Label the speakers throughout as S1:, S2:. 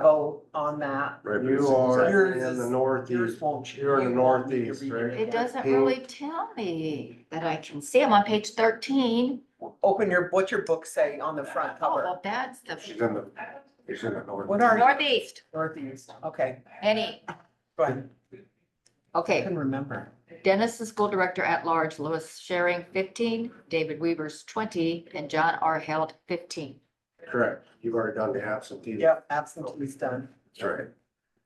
S1: vote on that.
S2: Right, but it's-
S3: You are
S1: Yours
S3: in
S1: is-
S3: the
S1: Yours
S3: northeast,
S1: won't.
S3: you're in the
S1: you won't need to
S3: northeast,
S1: read
S3: right?
S1: it.
S4: It doesn't
S3: Pink.
S4: really tell me that I can see. I'm on page thirteen.
S1: Open your, what's your book say on the front
S4: Oh,
S1: cover?
S4: well, that's the
S3: she's in the, she's in the northeast.
S1: What are-
S4: northeast,
S1: Northeast, okay,
S4: any,
S1: go ahead, I
S4: okay.
S1: can remember.
S4: Dennis, the school director at large, Louis Sharing fifteen, David Weavers twenty, and John R. Held fifteen.
S3: Correct, you've already done the absentee.
S1: Yep, absentee's done,
S3: That's right.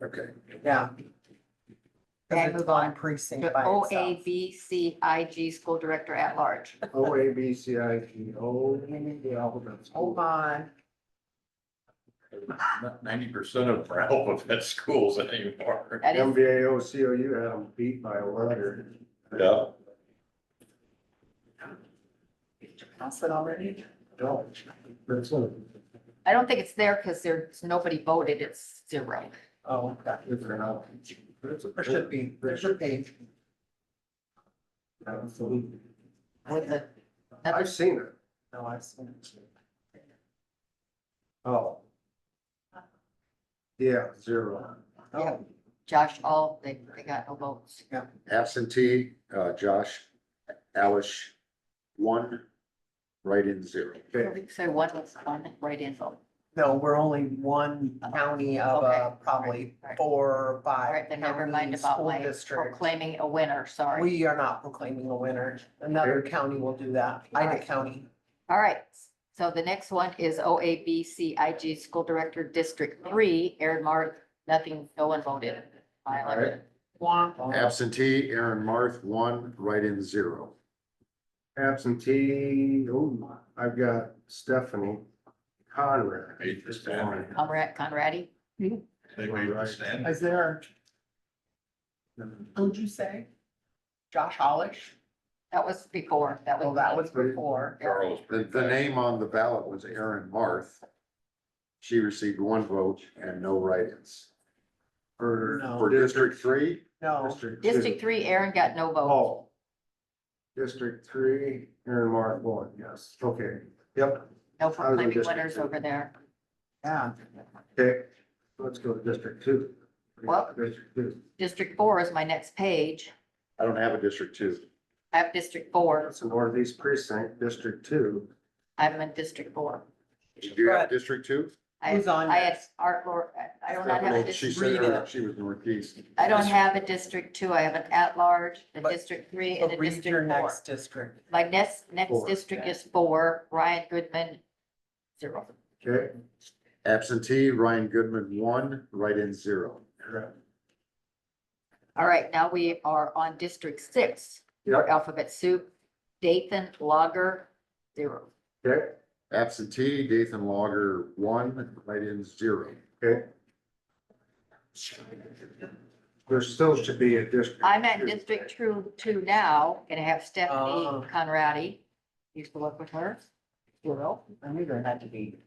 S3: Okay.
S1: yeah. 'Cause
S4: Okay,
S1: it's
S4: move
S1: one
S4: on.
S1: Precinct
S4: The
S1: by
S4: O A
S1: itself.
S4: B C I G, school director at large.
S3: O A B C I G O, we need the alphabet.
S1: Hold on,
S2: Ninety percent of our alphabet schools anymore.
S4: That
S3: M
S4: is,
S3: B A O C O U had them beat by a letter.
S2: Yeah.
S1: pass it already.
S3: Don't. That's what-
S4: I don't think it's there because there's, nobody voted. It's zero.
S1: Oh, okay.
S3: it's an out. It's a-
S1: There should be, there should be.
S3: Absolutely.
S4: With the,
S3: I've seen it.
S1: No, I've seen it.
S3: Oh. Yeah, zero.
S4: yeah, Josh, all, they, they got no votes.
S5: Absentee, uh, Josh, Alish, one, write-in zero.
S3: Okay.
S4: So one was one right in vote.
S1: No, we're only one county of uh,
S4: Okay.
S1: probably
S4: Right.
S1: four or
S4: All
S1: five
S4: right, then never
S1: county
S4: mind about
S1: school
S4: my
S1: districts.
S4: proclaiming a winner, sorry.
S1: We are not proclaiming a winner. Another county will do that. Ida
S4: Alright.
S1: County.
S4: All right, so the next one is OABCIG School Director District Three, Aaron Mark, nothing, no one voted. I like it.
S5: Absentee, Aaron Marth, one, write-in zero.
S3: Absentee, oh, I've got Stephanie Conrad.
S2: Eight to ten.
S4: Conrad, Conradi,
S2: They made us stand.
S1: Is there, who'd you say? Josh Hollish?
S4: that was before, that
S1: Well,
S4: was.
S1: that was before.
S2: Charles.
S5: The, the name on the ballot was Aaron Marth. She received one vote and no write-ins.
S3: For,
S1: No.
S5: For District Three,
S1: No,
S3: District two.
S4: District Three, Aaron got no vote.
S3: Oh. District three, Aaron Mark one, yes, okay, yep, I
S4: No
S3: was in
S4: proclaiming
S3: District
S4: winners
S3: Two.
S4: over there.
S1: yeah.
S3: okay, let's go to district two.
S4: Well-
S3: District two,
S4: District Four is my next page.
S5: I don't have a District Two.
S4: I have District Four.
S3: that's the northeast precinct, district two,
S4: I'm in District Four.
S5: Did you have District Two?
S4: I-
S1: Who's on
S4: I had
S1: next?
S4: Art, Lor- I do not have a
S5: She
S4: district.
S5: said
S1: read
S5: her-
S1: it.
S5: she was Northeast.
S4: I don't have a District Two, I have an at-large, a
S1: But-
S4: District Three,
S1: So
S4: and a
S1: read your
S4: District Four.
S1: next district.
S4: My next, next
S3: Four.
S4: district is four, Ryan Goodman, zero.
S3: okay?
S5: Absentee, Ryan Goodman, one, write-in zero.
S3: correct.
S4: All right, now we are on District Six,
S3: Yep,
S4: alphabet soup, Dathan Lager, zero.
S3: okay,
S5: Absentee, Dathan Logger, one, write-in zero.
S3: okay. There still should be a district.
S4: I'm at
S3: two.
S4: District Two, two now, and I have
S1: Oh.
S3: Ah.
S4: Stephanie Conradi, used to work with her, zero.
S1: I knew there had to be.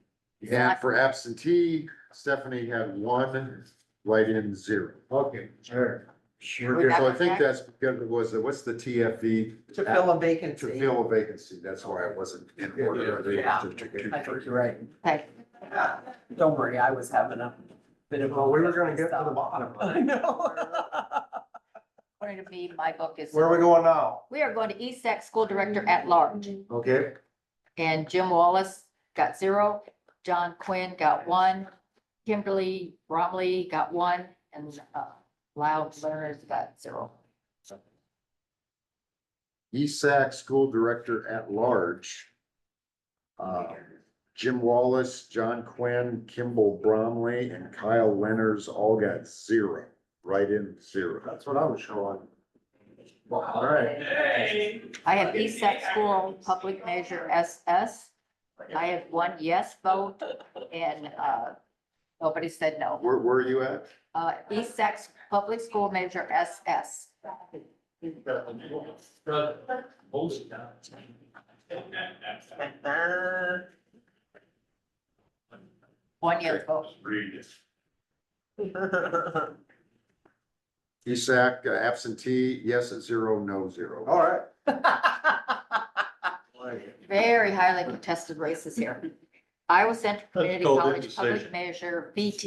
S5: And for absentee, Stephanie had one, write-in zero.
S3: Okay, sure.
S1: Sure.
S5: So I think that's because it was, what's the TFV?
S1: To fill a
S5: To
S1: vacancy.
S5: fill a vacancy, that's why it wasn't in order. of
S1: Yeah. I
S5: the-
S1: think you're right.
S4: Okay,
S1: Don't worry, I was having a bit of. a-
S3: Well, we were gonna get to the bottom of
S1: I
S3: it.
S1: know.
S4: according to me, my book is,
S3: Where are we going now?
S4: we are going to E ESAC School Director at Large.
S3: Okay,
S4: And Jim Wallace got zero, John Quinn got one, Kimberly Bromley got one, and uh, Loud Learners got zero.
S5: E ESAC School Director at Large. uh, Jim Wallace, John Quinn, Kimball Bromley, and Kyle Lenners all got zero, write-in zero.
S3: that's what I'm showing. All right,
S4: I have ESAC School Public Measure SS. I had one yes vote and uh, nobody said no.
S5: Where, where are you at?
S4: Uh, ESAC Public School Measure SS.
S1: Uh,
S4: One yes vote.
S5: ESAC uh, absentee, yes at zero, no zero.
S3: all right.
S4: Very highly contested races here. Iowa Central Community
S2: Let's go with
S4: College Public
S2: decision.
S4: Measure VT